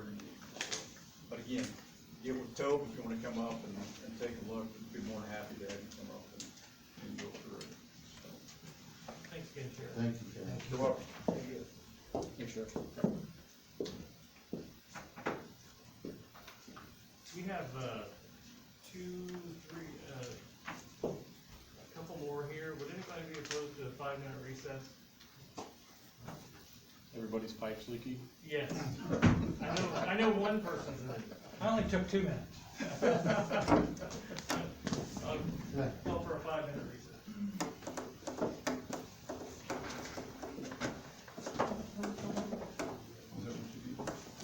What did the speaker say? again, get with Tobe if you wanna come up and, and take a look, we'd be more than happy to have you come up and, and go through it. So, Thanks again, Chair. Thank you, Karen. You're welcome. We have, uh, two, three, uh, a couple more here. Would anybody be opposed to a five-minute recess? Everybody's pipe's leaky. Yes. I know, I know one person's in Uh, it. I only took two minutes. Um, Right.